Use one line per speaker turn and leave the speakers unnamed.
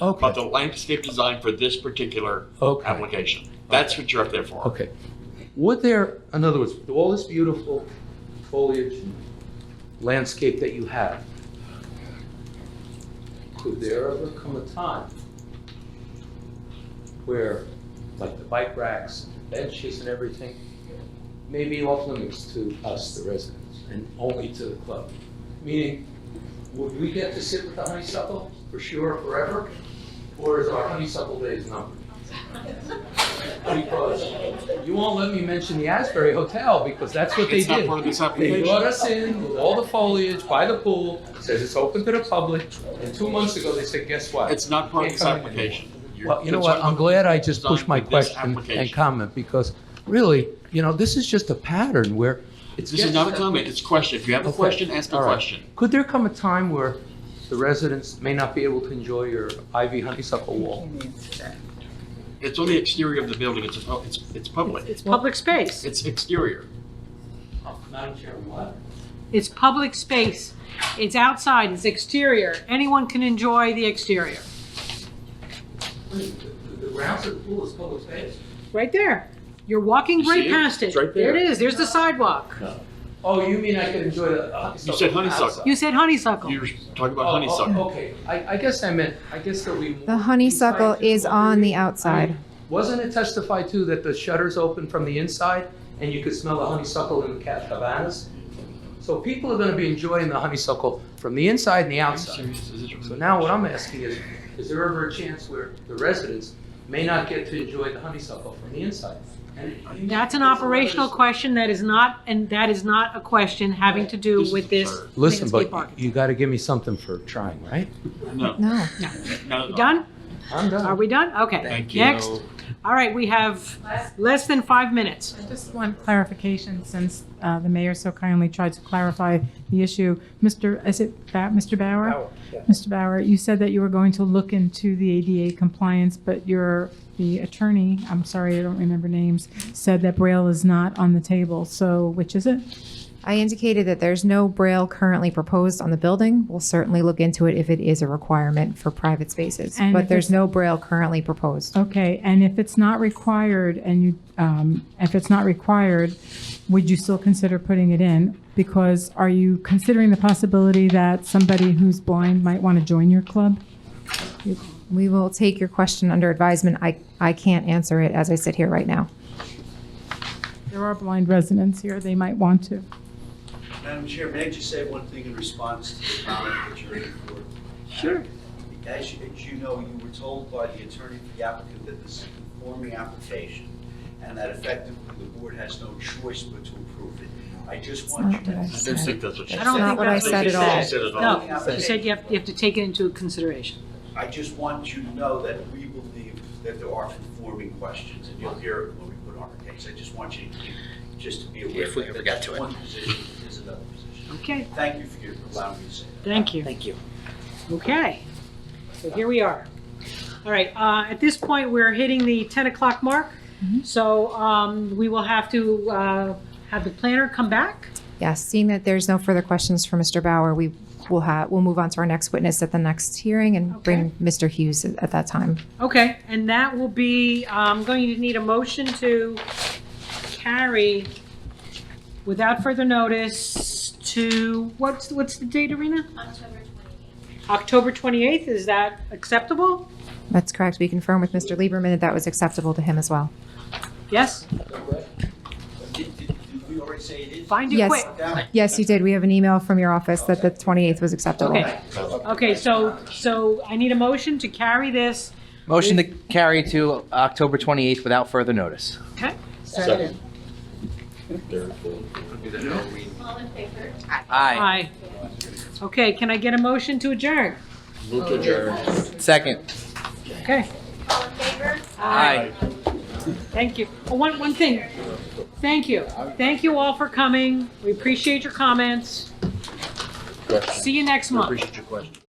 about
Okay,
the landscape design for this particular
Okay.
application. That's what you're up there for.
okay. Would there, in other words, with all this beautiful foliage and landscape that you have, could there ever come a time where, like the bike racks, benches and everything, maybe off limits to us, the residents, and only to the club? Meaning, would we get to sit with the honeysuckle for sure forever? Or is our honeysuckle days numbered? Because you won't let me mention the Asbury Hotel because that's what they
It's not
did.
part of this
They
application.
brought us in with all the foliage by the pool, says it's open to the public, and two months ago they said, guess what?
It's not part of this
Can't come in
application. You're
Well, you know what,
concerned
I'm
with
glad I just
design
pushed my
for this
question and
application.
comment because really, you know, this is just a pattern where it's.
This is not a comment, it's a question. If you have a
Okay.
question, ask a
All right.
question.
Could there come a time where the residents may not be able to enjoy your ivy honeysuckle wall?
It's on the exterior of the building, it's, a- it's, it's public.
It's public space.
It's exterior.
Uh, Madam Chairman, what?
It's public space. It's outside, it's exterior. Anyone can enjoy the exterior.
The grounds of the pool is public space.
Right there. You're walking
You
right
see it?
past it.
It's right
There
there.
it is, there's the sidewalk.
Oh, you mean I could enjoy the honeysuckle?
You said honeysuckle.
outside?
You said honeysuckle.
You're talking
Oh,
about
oh,
honeysuckle.
Okay, I, I guess I meant, I guess that we.
The honeysuckle is on the outside.
Wasn't it testified too that the shutters open from the inside and you could smell the honeysuckle in the ca- cabanas? So people are gonna be enjoying the honeysuckle from the inside and the outside.
Serious, is it-
So now what I'm asking is, is there ever a chance where the residents may not get to enjoy the honeysuckle from the inside? And-
That's an operational question that is not, and that is not a question having to do
This is
with this
absurd.
Listen,
landscape
but
architect.
you gotta give me something for trying, right?
No,
No.
Oh.
not at all.
Done?
I'm done.
Are we done? Okay.
Thank you.
Next. All right, we have less than five minutes.
Just one clarification, since uh, the mayor so kindly tried to clarify the issue. Mr., is it Ba- Mr. Bauer? Mr. Bauer, you said that you were going to look into the ADA compliance, but your, the attorney, I'm sorry, I don't remember names, said that Braille is not on the table. So which is it?
I indicated that there's no braille currently proposed on the building. We'll certainly look into it if it is a requirement for private spaces.
And
But
if
there's
it's-
no braille currently proposed.
Okay, and if it's not required and you, um, if it's not required, would you still consider putting it in? Because are you considering the possibility that somebody who's blind might want to join your club?
We will take your question under advisement. I, I can't answer it as I sit here right now.
There are blind residents here, they might want to.
Madam Chair, may I just say one thing in response to the comment that you're in for?
Sure.
As you, as you know, you were told by the attorney for the applicant that this is a conforming application, and that effectively the board has no choice but to approve it. I just want you
It's not what I
I don't
to.
think that's what she said.
I don't think
Not what I
that's what
said
you
at all.
said. No, you said you have, you have to take it into consideration.
I just want you to know that we believe that there are conforming questions, and you'll hear it when we put on our case. I just want you to keep, just to be aware.
If we
that
ever got to it.
That's one position, is another position.
Okay,
Thank you for your- allowing me to say that.
thank you. Thank you. Okay, so here we are. All right, uh, at this point, we're hitting the 10 o'clock mark, so um, we will have to uh, have the planner come back.
Yes, seeing that there's no further questions for Mr. Bauer, we will have, we'll move on to our next witness at the next hearing and bring Mr. Hughes at at that time.
Okay, and that will be, I'm going to need a motion to carry without further notice to, what's, what's the date, Arena?
October 28th.
October 28th, is that acceptable?
That's correct. We confirm with Mr. Lieberman that that was acceptable to him as well.
Yes?
Did, did, did we already say it is?
Find it
Yes.
quick.
Down?
Yes, you did. We have an email from your office that the 28th was acceptable.
Okay, okay, so, so I need a motion to carry this.
Motion to carry to October 28th without further notice.
Okay,
Second.
All in favor?
Aye.
aye. Okay, can I get a motion to adjourn?
Move to adjourn.
Second.
Okay,
All in favor?
Aye.
thank you. Oh, One, one thing, thank you. Thank you all for coming, we appreciate your comments. See you next month.
Appreciate your question.